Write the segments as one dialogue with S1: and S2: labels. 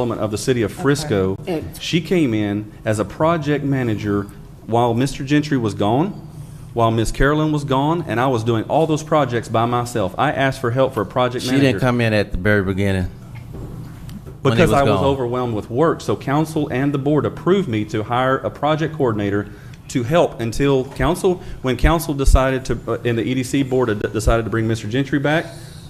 S1: development of the city of Frisco. She came in as a project manager while Mr. Gentry was gone, while Miss Carolyn was gone, and I was doing all those projects by myself. I asked for help for a project
S2: She didn't
S1: manager
S2: come in at the very beginning. when he
S1: because
S2: was
S1: I was
S2: gone.
S1: overwhelmed with work. So council and the board approved me to hire a project coordinator to help until council, when council decided to, uh, and the EDC board had decided to bring Mr. Gentry back,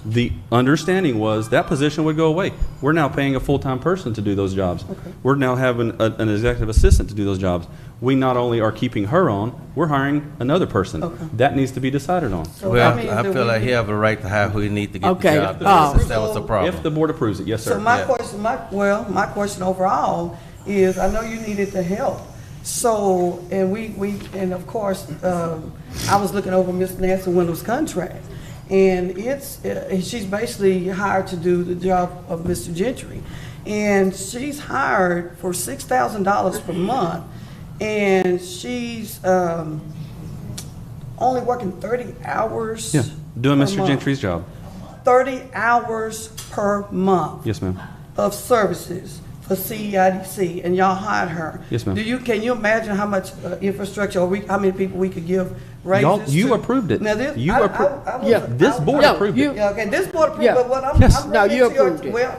S1: the understanding was that position would go away. We're now paying a full-time person to do those jobs. We're now having a- an executive assistant to do those jobs. We not only are keeping her on, we're hiring another person. That needs to be decided on.
S2: Well, I feel like he have a right to hire who he need to get the
S3: Oh, Okay,
S2: job
S3: uh,
S2: done, since that was the
S1: If the
S2: problem.
S1: board approves it, yes, sir.
S4: So my
S2: Yeah.
S4: question, my, well, my question overall is, I know you needed the help. So, and we, we, and of course, um, I was looking over Miss Nancy Wendell's contract. And it's, uh, she's basically hired to do the job of Mr. Gentry. And she's hired for six thousand dollars per month. And she's, um, only working thirty hours.
S1: Yeah, doing
S4: per
S1: Mr.
S4: month.
S1: Gentry's job.
S4: Thirty hours per month
S1: Yes, ma'am.
S4: of services for E CEIDC, and y'all hired her.
S1: Yes, ma'am.
S4: Do you, can you imagine how much uh, infrastructure, or we, how many people we could give raises
S1: Y'all- you
S4: to?
S1: approved it.
S4: Now, this,
S1: You
S4: I, I,
S1: appro-
S4: I was-
S3: Yeah.
S1: This
S4: I-
S1: board
S3: No,
S1: approved
S3: you-
S1: it.
S4: Yeah, okay, this board approved,
S3: Yeah.
S4: but what I'm,
S1: Yes.
S4: I'm
S3: No,
S4: bringing
S3: you
S4: to your-
S3: approved it.
S4: Well,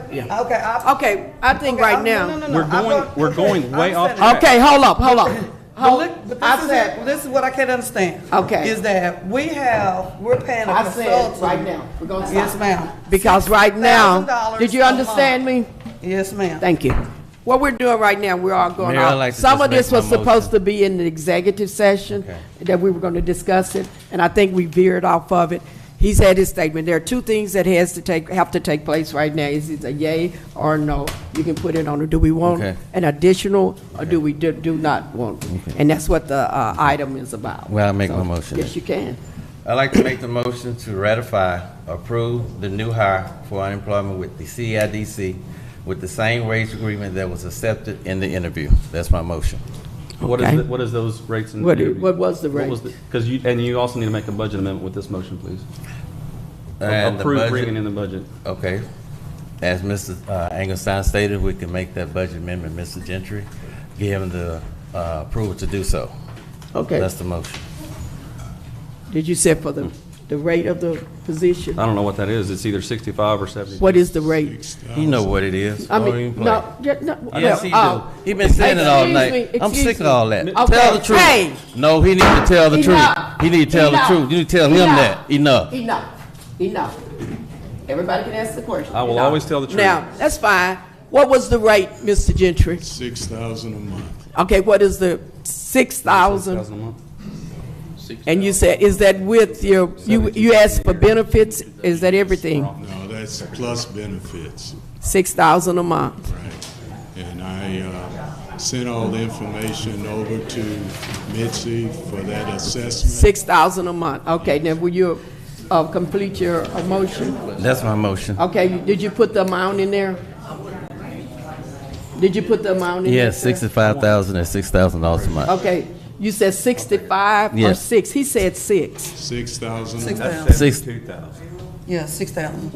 S4: okay, I.
S3: Okay, I think
S4: okay,
S3: right
S4: I'm-
S3: now-
S4: no, no, no,
S1: We're
S4: I
S1: going-
S4: brought-
S1: we're
S4: okay,
S1: going
S4: I'm
S1: way off
S4: finished.
S1: track.
S3: Okay, hold up, hold up.
S4: But
S3: Hold,
S4: look, but this
S3: I
S4: is,
S3: said,
S4: it. this is what I can't understand.
S3: Okay.
S4: Is that we have, we're paying a
S3: I said,
S4: consultant.
S3: right now, we're gonna
S4: Yes,
S3: stop.
S4: ma'am.
S3: Because right now,
S4: $6,000
S3: did you
S4: a month.
S3: understand me?
S4: Yes, ma'am.
S3: Thank you. What we're doing right now, we're all going
S2: Mayor, I'd
S3: off.
S2: like to
S3: Some
S2: just
S3: of this
S2: make my
S3: was supposed
S2: motion.
S3: to be in the executive session,
S2: Okay.
S3: that we were going to discuss it, and I think we veered off of it. He's had his statement. There are two things that has to take, have to take place right now. Is it a yay or no? You can put it on, do we want
S2: Okay.
S3: an additional, or do we do- do not want?
S2: Okay.
S3: And that's what the uh, item is about.
S2: Well, I make my
S3: So,
S2: motion.
S3: Yes, you can.
S2: I'd like to make the motion to ratify, approve the new hire for unemployment with the CIDC with the same wage agreement that was accepted in the interview. That's my motion.
S1: What is,
S3: Okay.
S1: the- what is those rates? and-
S3: What i- what was the rate?
S1: Because you, and you also need to make a budget amendment with this motion, please.
S2: And the
S1: Approve
S2: budget-
S1: bringing in the budget.
S2: Okay. As Mr. uh, Engelstein stated, we can make that budget amendment, Mr. Gentry, give him the uh, approval to do so.
S3: Okay.
S2: That's the motion.
S3: Did you say for the, the rate of the position?
S2: Uh,
S1: I don't know what that is. It's either sixty-five or seventy.
S3: What is the rate?
S2: You know what it is.
S3: I
S2: Don't
S3: mean,
S2: even play.
S3: no, yeah, no.
S2: Yes, he do.
S3: well, uh,
S2: He been saying it all
S3: excuse me,
S2: night. I'm
S3: excuse
S2: sick of
S3: me.
S2: all that.
S3: Okay,
S2: Tell the truth.
S3: hey.
S2: No, he need to tell the
S3: Enough.
S2: truth. He need to tell
S3: Enough.
S2: the truth. You need to tell him
S3: Enough.
S2: that. Enough.
S3: Enough, enough. Everybody can ask the question.
S1: I will
S3: Enough.
S1: always tell the truth.
S3: Now, that's fine. What was the rate, Mr. Gentry?
S5: Six thousand a month.
S3: Okay, what is the six thousand?
S1: $6,000 a month.
S3: And you said, is that with your, you, you asked for benefits? Is that everything?
S5: No, that's plus benefits,
S3: Six thousand a month?
S5: right? And I uh, sent all the information over to Mitzi for that assessment.
S3: Six thousand a month. Okay, now will you, uh, complete your uh, motion?
S2: That's my motion.
S3: Okay, did you put the amount in there? Did you put the amount in?
S2: Yeah,
S3: there, sir?
S2: sixty-five thousand and six thousand dollars a month.
S3: Okay, you said sixty-five or
S2: Yes.
S3: six? He said six.
S5: Six thousand
S4: Six
S5: a
S4: thousand,
S2: Six,
S4: yeah, six thousand.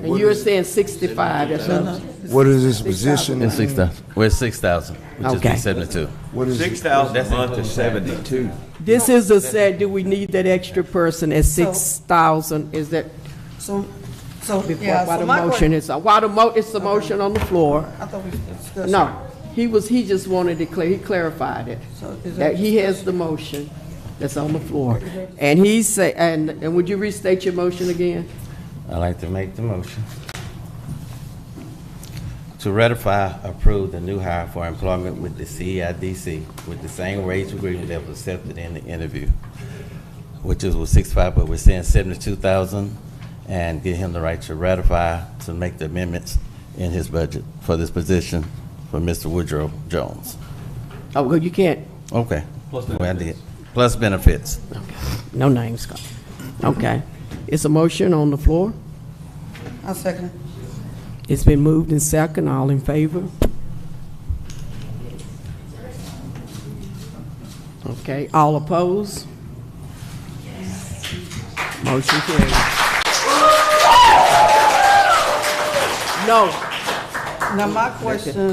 S3: And you were saying sixty-five, that's what,
S6: What is this position?
S2: it's six thousand. We're at six thousand, which is
S3: Okay.
S2: the seventy-two.
S6: What is
S7: Six thousand a month is seventy-two.
S3: this is a said, do we need that extra person at six thousand? Is that,
S4: So, so, yeah,
S3: before,
S4: so
S3: while the
S4: my
S3: motion
S4: question.
S3: is, uh, while the mo, it's the motion on the floor?
S4: I thought we discussed.
S3: No, he was, he just wanted to clear, he clarified it.
S4: So is
S3: That
S4: that-
S3: he has the motion that's on the floor. And he say, and, and would you restate your motion again?
S2: I'd like to make the motion to ratify, approve the new hire for employment with the CEIDC with the same wage agreement that was accepted in the interview, which is with six-five, but we're saying seventy-two thousand, and give him the right to ratify, to make the amendments in his budget for this position for Mr. Woodrow Jones.
S3: Oh, well, you can't,
S2: Okay.
S1: Plus
S2: Well, I did. Plus benefits.
S3: no names, Scott. Okay, it's a motion on the floor?
S4: I second it.
S3: It's been moved and second, all in favor? Okay, all opposed? Motion carries. No,
S4: Now, my question